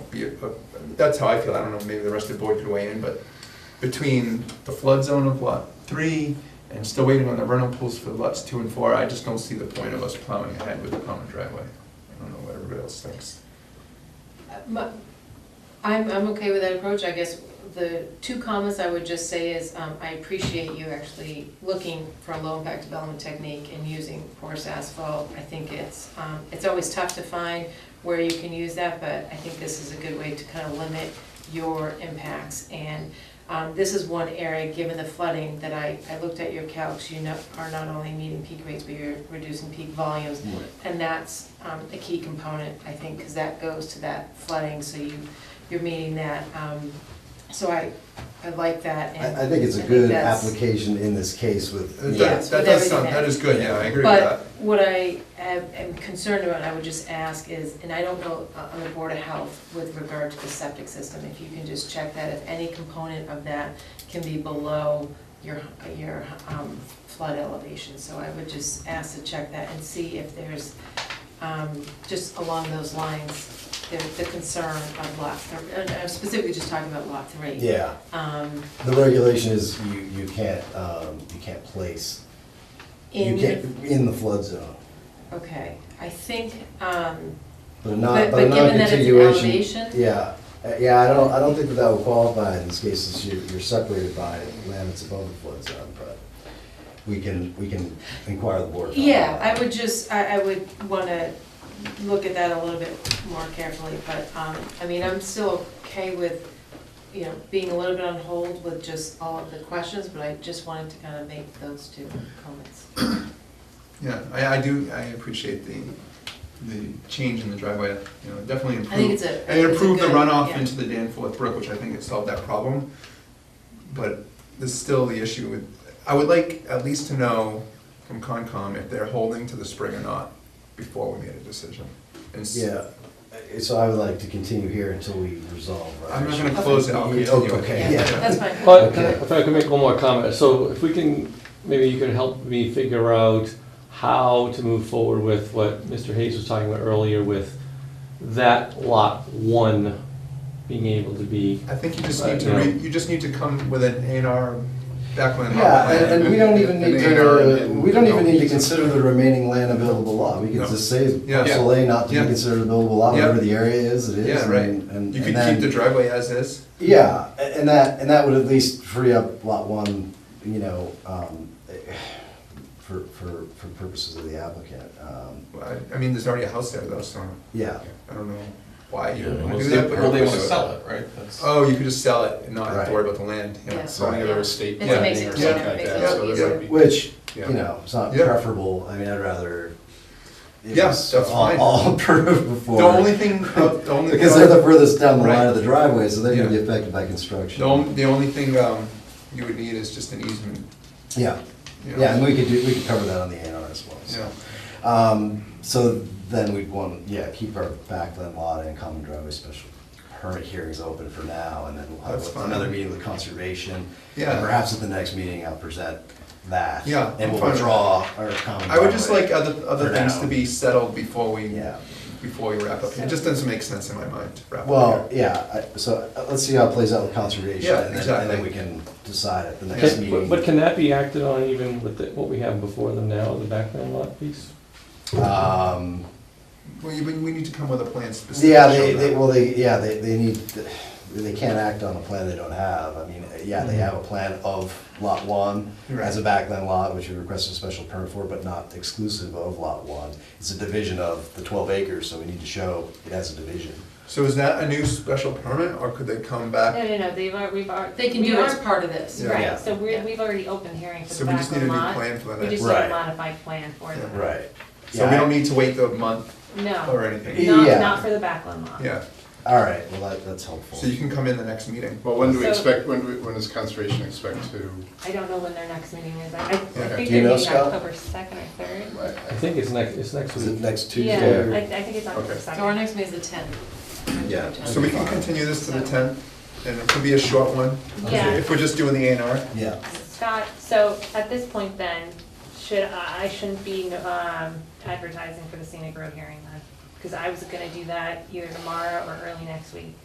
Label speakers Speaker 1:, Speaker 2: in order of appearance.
Speaker 1: uh, that's how I feel, I don't know, maybe the rest of the board could weigh in, but between the flood zone of lot three and still waiting on the rental pools for lots two and four, I just don't see the point of us plowing ahead with the common driveway. I don't know what everybody else thinks.
Speaker 2: Uh, My- I'm, I'm okay with that approach, I guess the two comments I would just say is, um, I appreciate you actually looking for a low impact development technique and using porous asphalt. I think it's, um, it's always tough to find where you can use that, but I think this is a good way to kind of limit your impacts. And, um, this is one area, given the flooding, that I, I looked at your calcs, you know, are not only meeting peak rates, but you're reducing peak volumes. And that's um, a key component, I think, because that goes to that flooding, so you, you're meeting that. um, So I, I like that. and
Speaker 3: I, I think it's a good
Speaker 2: that's-
Speaker 3: application in this case with,
Speaker 1: That-
Speaker 2: Yes,
Speaker 1: That
Speaker 2: with
Speaker 1: does sound,
Speaker 2: everything.
Speaker 1: that is good, yeah, I agree with
Speaker 2: But
Speaker 1: that.
Speaker 2: what I am am concerned about, I would just ask is, and I don't know uh, on the Board of Health with regard to the septic system, if you can just check that, if any component of that can be below your, your um, flood elevation. So I would just ask to check that and see if there's, um, just along those lines, the, the concern of lot, thr- uh, I'm specifically just talking about lot three.
Speaker 3: yeah.
Speaker 2: Um,
Speaker 3: The regulation is you, you can't, um, you can't place, you
Speaker 2: in,
Speaker 3: can't, in the flood zone.
Speaker 2: okay, I think, um,
Speaker 3: But
Speaker 2: But-
Speaker 3: a non,
Speaker 2: but
Speaker 3: but a
Speaker 2: given that it's an
Speaker 3: non-continuation.
Speaker 2: elevation?
Speaker 3: Yeah, Uh, yeah, I don't, I don't think that that would qualify in these cases, you're, you're separated by land that's above the flood zone, but we can, we can inquire the board. about
Speaker 2: Yeah,
Speaker 3: that.
Speaker 2: I would just, I, I would wanna look at that a little bit more carefully, but, um, I mean, I'm still okay with, you know, being a little bit on hold with just all of the questions, but I just wanted to kind of make those two comments.
Speaker 1: Yeah, I, I do, I appreciate the, the change in the driveway, you know, definitely improved.
Speaker 2: I think it's a.
Speaker 1: And it
Speaker 2: it's a
Speaker 1: improved the
Speaker 2: good-
Speaker 1: runoff
Speaker 2: yeah.
Speaker 1: into the Danforth Brook, which I think it solved that problem. But there's still the issue with, I would like at least to know from Concom if they're holding to the spring or not before we made a decision. And s-
Speaker 3: Yeah, Uh, so I would like to continue here until we resolve, right?
Speaker 1: I'm not gonna close it, I'll
Speaker 3: Okay.
Speaker 1: continue it.
Speaker 3: Okay,
Speaker 2: Yeah,
Speaker 3: yeah.
Speaker 2: that's fine.
Speaker 4: But can I- if I could make one more comment, so if we can, maybe you can help me figure out how to move forward with what Mr. Hayes was talking about earlier with that lot one being able to be,
Speaker 1: I think you just need to
Speaker 4: Right, yeah.
Speaker 1: re, you just need to come with an A and R backland.
Speaker 3: Yeah, and, and we don't even need to, uh,
Speaker 1: An
Speaker 3: we don't even need to
Speaker 1: A&R.
Speaker 3: consider the remaining land available lot, we can
Speaker 1: No.
Speaker 3: just say
Speaker 1: Yeah.
Speaker 3: parcel A not to be
Speaker 1: Yeah.
Speaker 3: considered available lot, whatever
Speaker 1: Yeah.
Speaker 3: the area is, it is.
Speaker 1: Yeah, right.
Speaker 3: and- and-
Speaker 1: You
Speaker 3: and
Speaker 1: could
Speaker 3: then-
Speaker 1: keep the driveway as is.
Speaker 3: Yeah, a- and that, and that would at least free up lot one, you know, um, for, for, for purposes of the applicant. Um,
Speaker 1: Well, I, I mean, there's already a house there though, so
Speaker 3: Yeah,
Speaker 1: I don't know why you would
Speaker 5: Well,
Speaker 1: wanna
Speaker 5: they-
Speaker 1: do that. but
Speaker 5: well, they
Speaker 1: you're
Speaker 5: want
Speaker 1: gonna do it.
Speaker 5: to sell it, right? That's-
Speaker 1: Oh, you could just sell it and not have to
Speaker 3: Right.
Speaker 1: worry about the land, yeah.
Speaker 2: Yeah.
Speaker 5: Selling it or
Speaker 2: It
Speaker 5: estate
Speaker 1: makes
Speaker 2: it-
Speaker 5: planning or
Speaker 2: yeah,
Speaker 5: something
Speaker 2: it
Speaker 5: like
Speaker 2: makes
Speaker 1: it
Speaker 5: that, so
Speaker 1: easier.
Speaker 5: that would be.
Speaker 3: which,
Speaker 1: Yeah.
Speaker 3: you know, it's not
Speaker 1: Yeah.
Speaker 3: preferable, I mean, I'd rather. it
Speaker 1: Yeah,
Speaker 3: was
Speaker 1: that's
Speaker 3: all-
Speaker 1: fine.
Speaker 3: All approved before.
Speaker 1: The only thing, uh, the only.
Speaker 3: Because they're the furthest down the line
Speaker 1: Right.
Speaker 3: of the driveway, so they're gonna be
Speaker 1: Yeah.
Speaker 3: affected by
Speaker 1: The only,
Speaker 3: construction.
Speaker 1: the only thing, um, you would need is just an easement,
Speaker 3: Yeah,
Speaker 1: you know.
Speaker 3: yeah, and we could do, we could cover that on the A and R as well, so.
Speaker 1: Yeah,
Speaker 3: Um, so then we'd want, yeah, keep our backland lot and common driveway special permit hearings open for now, and then we'll
Speaker 1: That's
Speaker 3: have
Speaker 1: fine.
Speaker 3: another meeting with conservation. and
Speaker 1: Yeah.
Speaker 3: Perhaps at the next meeting, I'll present that.
Speaker 1: Yeah, I'm
Speaker 3: And we'll
Speaker 1: fine with
Speaker 3: withdraw our common
Speaker 1: I would just
Speaker 3: driveway.
Speaker 1: like uh, other, other
Speaker 3: For
Speaker 1: things
Speaker 3: now.
Speaker 1: to be settled before we,
Speaker 3: Yeah.
Speaker 1: before we wrap up, it just doesn't make sense in my mind to wrap up.
Speaker 3: Well,
Speaker 1: here.
Speaker 3: yeah, I- so uh, let's see how it plays out with conservation.
Speaker 1: Yeah,
Speaker 3: and then- And then
Speaker 1: exactly.
Speaker 3: we can decide at the next
Speaker 4: Can-
Speaker 3: meeting.
Speaker 4: but but can that be acted on even with the- what we have before them now, the backland lot piece?
Speaker 3: Um,
Speaker 1: Well, you, we need to come with a plan specific.
Speaker 3: Yeah, they, they, well, they, yeah, they, they need, they can't act on a plan they don't have. I mean, yeah, they have a plan of lot one as a backland lot, which you requested a special permit for, but not exclusive of lot one. It's a division of the twelve acres, so we need to show it has a division.
Speaker 1: So is that a new special permit, or could they come
Speaker 6: No,
Speaker 1: back?
Speaker 6: no, no, they've, al- we've already.
Speaker 2: They can do it as part of this.
Speaker 1: Yeah.
Speaker 6: Right, so
Speaker 2: Yeah.
Speaker 6: we're, we've already opened hearing for
Speaker 1: So
Speaker 6: the
Speaker 1: we just
Speaker 6: back
Speaker 1: need a new
Speaker 6: lot.
Speaker 1: plan for the
Speaker 6: We
Speaker 1: next.
Speaker 6: just need
Speaker 3: Right.
Speaker 6: a modified plan for
Speaker 1: Yeah.
Speaker 6: them.
Speaker 3: Right.
Speaker 1: So we
Speaker 3: Yeah, I-
Speaker 1: don't need to wait the month or
Speaker 6: No,
Speaker 1: anything,
Speaker 3: Yeah.
Speaker 6: not, not for the back lot.
Speaker 1: yeah,
Speaker 3: All right, well, that, that's helpful.
Speaker 1: so you can come in the next meeting.
Speaker 5: Well, when do we
Speaker 6: So-
Speaker 5: expect, when, do we- when does conservation expect to,
Speaker 6: I don't know when their next meeting is. I, I think
Speaker 3: Do you
Speaker 6: they're
Speaker 3: know,
Speaker 6: meeting
Speaker 3: Scott?
Speaker 6: October second or third.
Speaker 4: I think it's next, it's next
Speaker 3: Is it
Speaker 4: week.
Speaker 3: next
Speaker 6: Yeah,
Speaker 3: Tuesday?
Speaker 6: I, I think it's October
Speaker 5: Okay.
Speaker 2: So our
Speaker 6: second.
Speaker 2: next meeting is the tenth.
Speaker 3: Yeah.
Speaker 1: So we can continue this to the tenth, and it could be a short one,
Speaker 6: Yeah,
Speaker 1: if we're just doing the A and R.
Speaker 3: Yeah,
Speaker 6: Scott, so at this point then, should, I I shouldn't be, um, advertising for the scenic road hearing then? Because I was gonna do that either tomorrow or early next week.